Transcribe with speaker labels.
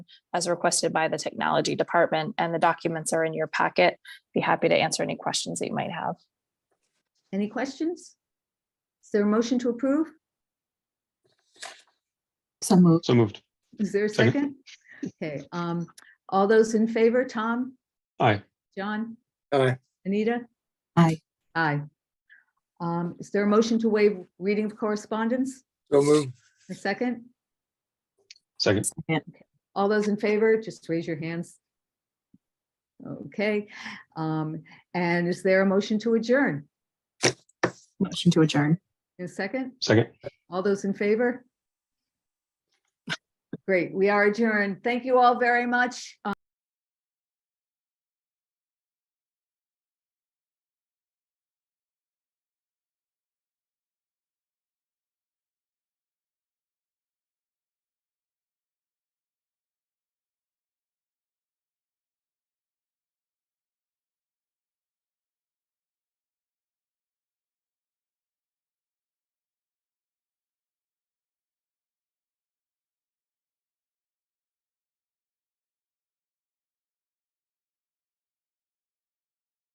Speaker 1: as requested by the Technology Department, and the documents are in your packet. Be happy to answer any questions that you might have.
Speaker 2: Any questions? Is there a motion to approve?
Speaker 3: So moved.
Speaker 4: So moved.
Speaker 2: Is there a second?
Speaker 4: Second.
Speaker 2: Okay, um, all those in favor, Tom,
Speaker 4: Aye.
Speaker 2: John,
Speaker 5: Aye.
Speaker 2: Anita?
Speaker 3: Aye.
Speaker 2: Aye. Um, is there a motion to waive reading of correspondence?
Speaker 5: So move.
Speaker 2: A second?
Speaker 4: Second.
Speaker 2: All those in favor, just raise your hands. Okay, um, and is there a motion to adjourn?
Speaker 3: Motion to adjourn.
Speaker 2: A second?
Speaker 4: Second.
Speaker 2: All those in favor? Great, we are adjourned. Thank you all very much.